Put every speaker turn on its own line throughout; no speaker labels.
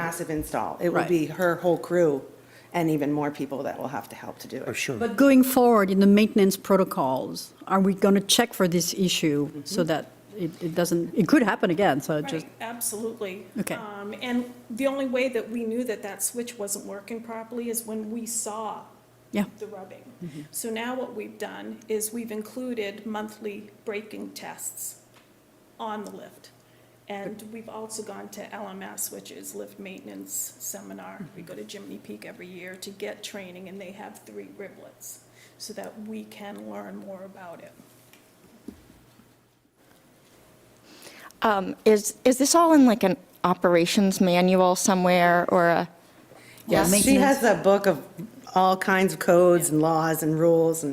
massive install. It will
Right.
be her whole crew and even more people that will have to help to do
Oh,
it.
sure.
But going forward in the maintenance protocols, are we going to check for this issue
Mm-hmm.
so that it it doesn't, it could happen again, so just,
Right, absolutely.
Okay.
Um, And the only way that we knew that that switch wasn't working properly is when we saw
yeah,
the rubbing.
Mm-hmm.
So now what we've done is we've included monthly braking tests on the lift. And we've also gone to LMS, which is Lift Maintenance Seminar.
Mm-hmm.
We go to Jiminy Peak every year to get training, and they have three riblets, so that we can learn more about it.
Um, Is, is this all in like an operations manual somewhere or a?
Yes.
She has a book of all kinds of codes and laws and rules and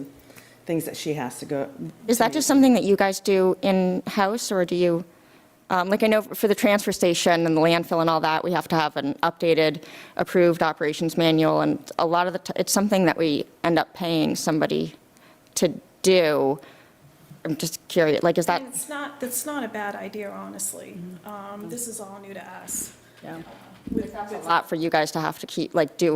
things that she has to go,
Is that just something that you guys do in-house or do you, um, like I know for the transfer station and the landfill and all that, we have to have an updated, approved operations manual and a lot of the, t- it's something that we end up paying somebody to do. I'm just curious, like is that?
And It's not, that's not a bad idea, honestly.
Mm-hmm.
Um, This is all new to us.
yeah.
a lot for you guys to have to keep, like, do,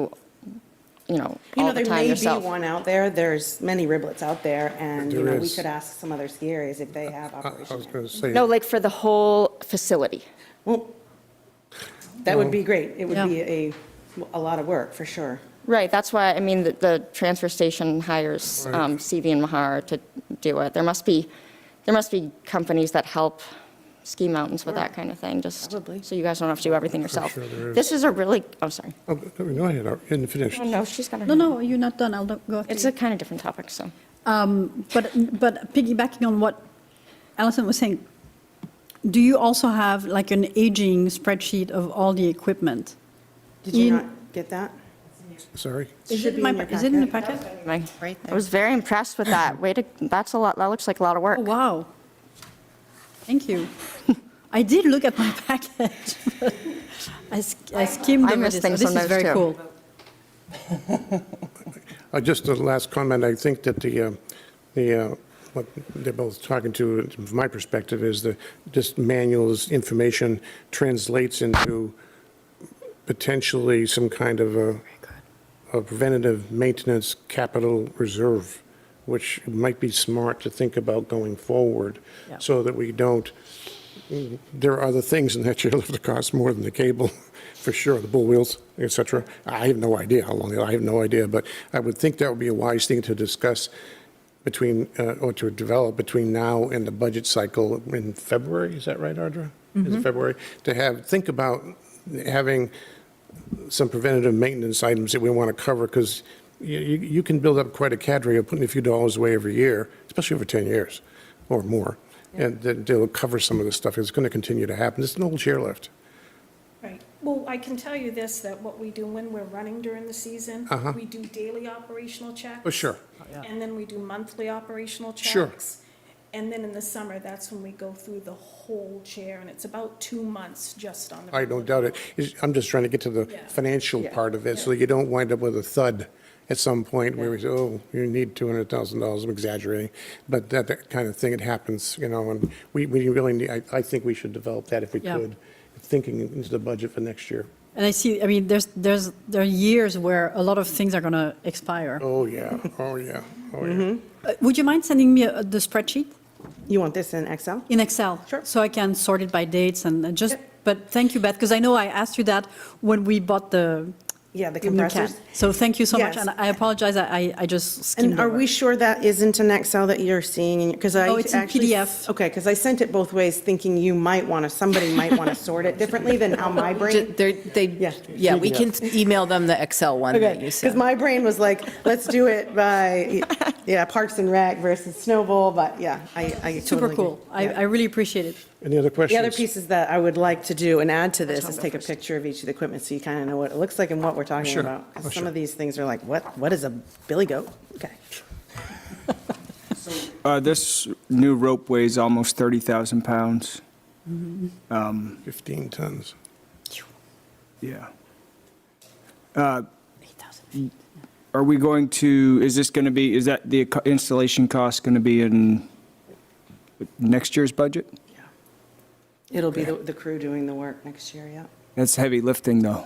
you know,
You know,
all the
there
time
may be
yourself.
one out there, there's many riblets out there, and, you
There
know, we
is.
could ask some other ski areas if they have
I I was going
operations.
to say,
No, like for the whole facility.
Well, that would be great, it would
Yeah.
be a, a lot of work, for sure.
Right, that's why, I mean, the, the transfer station hires um, CV and Mahar to do it. There must be, there must be companies that help ski mountains with that kind of thing, just
Probably.
so you guys don't have to do everything yourself.
sure there is.
This is a really, oh, sorry.
oh, no, I had I didn't finish.
Oh, no, she's got her.
No, no, you're not done, I'll go after
It's
you.
a kind of different topic, so.
Um, But, but piggybacking on what Alison was saying, do you also have like an aging spreadsheet of all the equipment?
Did you
In-
not get that?
Sorry.
Is
Should
it
be
my-
in your
Is it in the
packet.
packet?
I
Right
I was very impressed with that. Way to, that's a lot, that looks like a lot of work.
Oh, wow. Thank you. I did look at my package. but I sk- I skimmed
I
over
miss
this, so
things
this is
sometimes,
very
too.
cool.
Uh, Just the last comment, I think that the, uh, the, uh, what they're both talking to, from my perspective, is the, this manual's information translates into potentially some kind of a a preventative maintenance capital reserve, which might be smart to think about going forward,
Yeah.
so that we don't, there are other things in that chairlift that cost more than the cable, for sure, the bull wheels, et cetera. I have no idea how long, I have no idea, but I would think that would be a wise thing to discuss between, uh, or to develop between now and the budget cycle in February, is that right, Ardra? Is it February? To have, think about having some preventative maintenance items that we want to cover, because you, you can build up quite a cadre of putting a few dollars away every year, especially over 10 years or more, and that they'll cover some of this stuff. It's going to continue to happen. It's an old chairlift.
Right. Well, I can tell you this, that what we do when we're running during the season,
Uh-huh.
we do daily operational checks.
Oh, sure.
And then we do monthly operational checks.
Sure.
And then in the summer, that's when we go through the whole chair, and it's about two months just on the.
I don't doubt it. It's- I'm just trying to get to the
Yeah.
financial part of it, so you don't wind up with a thud at some point where we say, oh, you need $200,000, I'm exaggerating, but that, that kind of thing, it happens, you know, and we, we really need, I, I think we should develop that if we
Yeah.
could, thinking into the budget for next year.
And I see, I mean, there's, there's, there are years where a lot of things are going to expire.
Oh, yeah, oh, yeah, oh, yeah.
Uh, Would you mind sending me uh, the spreadsheet
You want this in Excel?
in Excel?
Sure.
So I can sort it by dates and uh, just, but thank you, Beth, because I know I asked you that when we bought the.
Yeah, the
new can.
compressors.
So thank you so much,
Yes.
and I apologize, I, I- I just skimmed
And are
over.
we sure that isn't an Excel that you're seeing? Because I
No, Oh, it's in
actually-
PDF.
Okay, because I sent it both ways, thinking you might want to, somebody might want to sort it differently than how my brain
Ju- they're-
Yeah.
They, yeah, we can email them the Excel one
Okay,
that you
because
sent.
my brain was like, let's do it by, yeah, Parks and Rec versus Snowball, but yeah, I, I totally.
Super
agree.
cool. I,
Yeah.
I really appreciate it.
Any other
The
questions?
other pieces that I would like to do and add to this is take a picture of each of the equipment so you kind of know what it looks like and what we're talking
Sure.
about. 'Cause
Oh,
some
sure.
of these things are like, what, what is a billy goat? Okay.
Uh, This new rope weighs almost 30,000 pounds.
15 tons.
Yeah. Uh, Are we going to, is this going to be, is that the co- installation cost going to be in next year's budget?
It'll be the the crew doing the work next year, yeah.
That's heavy lifting, though.